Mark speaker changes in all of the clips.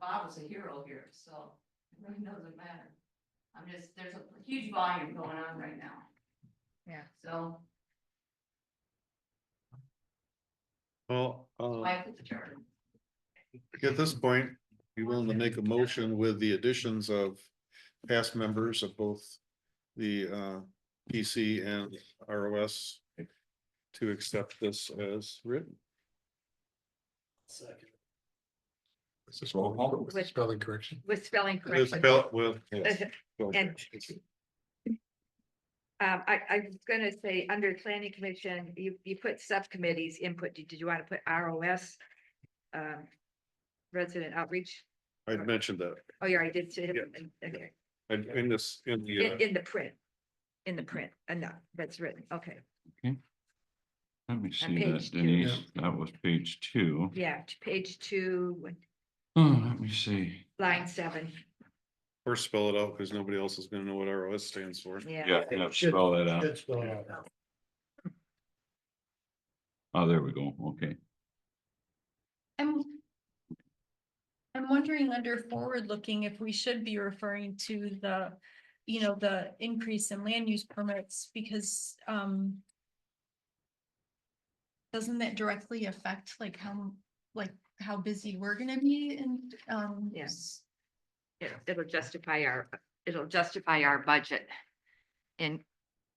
Speaker 1: Bob is a hero here, so it really doesn't matter. I'm just, there's a huge volume going on right now.
Speaker 2: Yeah.
Speaker 1: So
Speaker 3: Well, uh,
Speaker 1: why put the charter?
Speaker 3: at this point, you willing to make a motion with the additions of past members of both the uh PC and ROS to accept this as written?
Speaker 4: Second.
Speaker 5: Is this roll call?
Speaker 2: With-
Speaker 5: Spelling correction.
Speaker 2: with spelling
Speaker 3: It is
Speaker 2: correction.
Speaker 3: spelled with.
Speaker 2: And- Um, I, I was gonna say, under planning commission, you, you put subcommittees input. Did you want to put ROS? Um, resident outreach?
Speaker 3: I mentioned that,
Speaker 2: Oh, yeah, I did say,
Speaker 3: Yeah.
Speaker 2: okay,
Speaker 3: I- in this, in the, uh,
Speaker 2: in, in the print, in the print, enough, that's written, okay,
Speaker 6: Let me see
Speaker 2: page
Speaker 6: that
Speaker 2: two.
Speaker 6: Denise, that was page two.
Speaker 2: yeah, to page two,
Speaker 6: Oh, let me see.
Speaker 2: line seven,
Speaker 3: or spell it out, because nobody else is gonna know what ROS stands for.
Speaker 2: yeah.
Speaker 6: Yeah, yeah, spell that out.
Speaker 4: Should spell it out.
Speaker 6: Oh, there we go. Okay.
Speaker 7: I'm. I'm wondering under forward looking if we should be referring to the, you know, the increase in land use permits because um. Doesn't that directly affect like how, like how busy we're gonna be and um.
Speaker 2: Yes.
Speaker 1: It- It'll justify our, it'll justify our budget in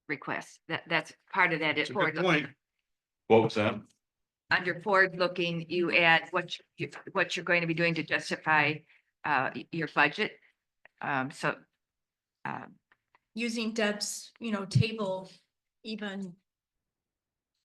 Speaker 1: requests. That, that's part of that.
Speaker 3: It's
Speaker 1: It's
Speaker 3: a good point.
Speaker 6: What was that?
Speaker 1: Under forward-looking, you add what, you- what you're going to be doing to justify uh, y- your budget. Um, So um,
Speaker 7: Using Deb's, you know, table even.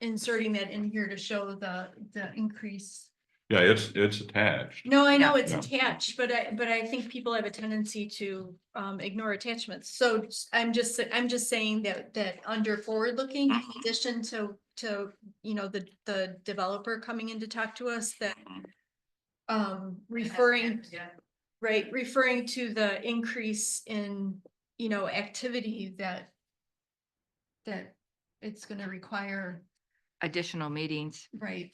Speaker 7: Inserting that in here to show the, the increase.
Speaker 6: Yeah, it's, it's attached.
Speaker 7: No, I know
Speaker 1: Yeah.
Speaker 7: it's
Speaker 6: Yeah.
Speaker 7: attached, but I, but I think people have a tendency to um ignore attachments. So s- I'm just, sa- I'm just saying that that under forward looking, in
Speaker 6: Mhm.
Speaker 1: Mm-hmm.
Speaker 7: addition to to, you know, the the developer coming in to talk to us that
Speaker 1: Mm-hmm.
Speaker 7: um referring, right, referring to the increase in, you know, activity that that it's gonna require,
Speaker 1: additional meetings.
Speaker 7: right?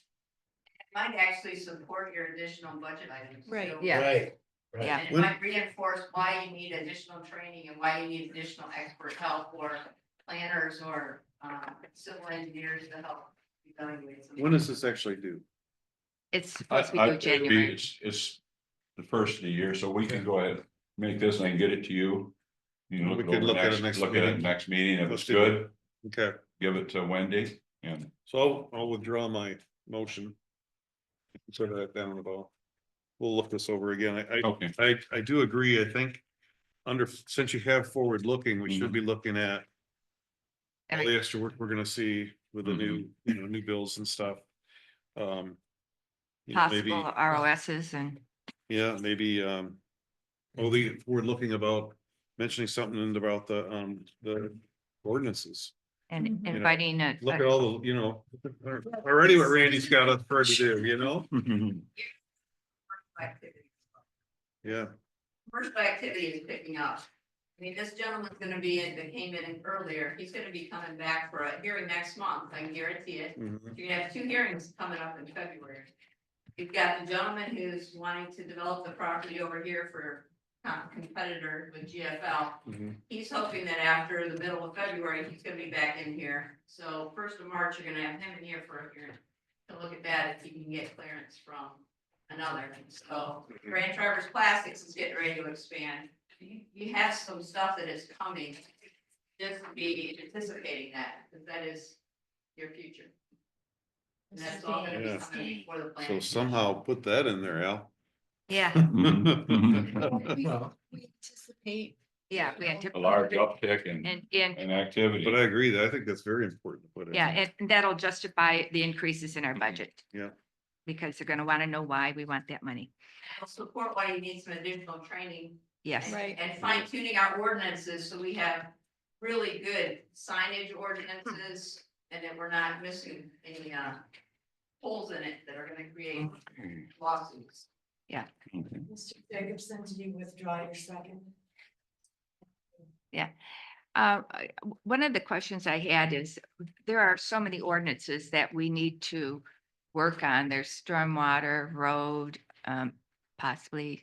Speaker 1: Might actually support your additional budget items.
Speaker 7: Right.
Speaker 1: Yeah.
Speaker 4: Right, right.
Speaker 1: Yeah.
Speaker 3: it might
Speaker 1: reinforce why you need additional training and why you need additional expert help or planners or um, civil engineers to help evaluate.
Speaker 3: When does this actually do?
Speaker 1: It's
Speaker 2: Oh,
Speaker 6: I,
Speaker 1: supposed to
Speaker 6: I,
Speaker 1: go
Speaker 6: it'd be-
Speaker 1: January.
Speaker 6: it's, it's the first of the year, so we can go ahead, make this and I can get it to you. You know,
Speaker 3: We
Speaker 6: look
Speaker 3: could
Speaker 6: it over
Speaker 3: look at it
Speaker 6: next,
Speaker 3: next
Speaker 6: look at it
Speaker 3: meeting.
Speaker 6: next meeting. If
Speaker 3: Let's
Speaker 6: it's
Speaker 3: do that.
Speaker 6: good,
Speaker 3: Okay,
Speaker 6: give it to Wendy and
Speaker 3: so I'll, I'll withdraw my motion. Consider that down at all. We'll look this over again. I, I
Speaker 6: okay.
Speaker 3: I, I do agree, I think. Under, since you have forward looking, we
Speaker 1: Mm-hmm.
Speaker 3: should be looking at. All the extra work we're gonna see with the new,
Speaker 1: Mm-hmm.
Speaker 3: you know, new bills and stuff. Um. you know, maybe-
Speaker 1: Possible ROSs and.
Speaker 3: Yeah, maybe, um. Well, the, we're looking about mentioning something about the, um, the ordinances.
Speaker 1: And
Speaker 7: Mhm.
Speaker 1: inviting a.
Speaker 3: Look at all the, you know, already what Randy's got us for to do, you know?
Speaker 6: Mm-hmm.
Speaker 3: Yeah,
Speaker 1: Commercial activity is picking up. I mean, this gentleman's gonna be in, that came in earlier, he's gonna be coming back for a hearing next month, I guarantee it.
Speaker 3: mhm,
Speaker 1: You're gonna have two hearings coming up in February. You've got the gentleman who's wanting to develop the property over here for com- competitor with GFL.
Speaker 3: mhm.
Speaker 1: He's hoping that after the middle of February, he's gonna be back in here. So first of March, you're gonna have him in here for a hearing. To look at that, if you can get clearance from another. So
Speaker 3: Mhm.
Speaker 1: Grand Traverse Plastics is getting ready to expand. You, you have some stuff that is coming. Just be anticipating that, because that is your future. And that's all gonna be
Speaker 3: Yeah.
Speaker 1: coming for the
Speaker 3: So
Speaker 1: plan.
Speaker 3: somehow put that in there, Al.
Speaker 1: Yeah,
Speaker 6: Mm-hmm.
Speaker 7: We
Speaker 4: Well,
Speaker 7: we anticipate.
Speaker 1: yeah, we
Speaker 6: A large
Speaker 1: anticipate.
Speaker 6: uptick in,
Speaker 1: And, and,
Speaker 6: in activity.
Speaker 3: But I agree that I think that's very important to put it.
Speaker 1: yeah, and that'll justify the increases in our
Speaker 6: Mhm.
Speaker 1: budget.
Speaker 3: Yeah.
Speaker 1: Because they're gonna wanna know why we want that money. Support why you need some additional training
Speaker 2: Yes.
Speaker 7: Right.
Speaker 1: And fine tuning our ordinances, so we have really good signage ordinances, and that we're not missing any, uh, holes in it that are gonna create
Speaker 6: Okay,
Speaker 1: lawsuits.
Speaker 6: okay.
Speaker 8: Mr. Jacobson, do you withdraw your second?
Speaker 1: Uh, I- w- one of the questions I had is, there are so many ordinances that we need to work on. There's stormwater, road, um, possibly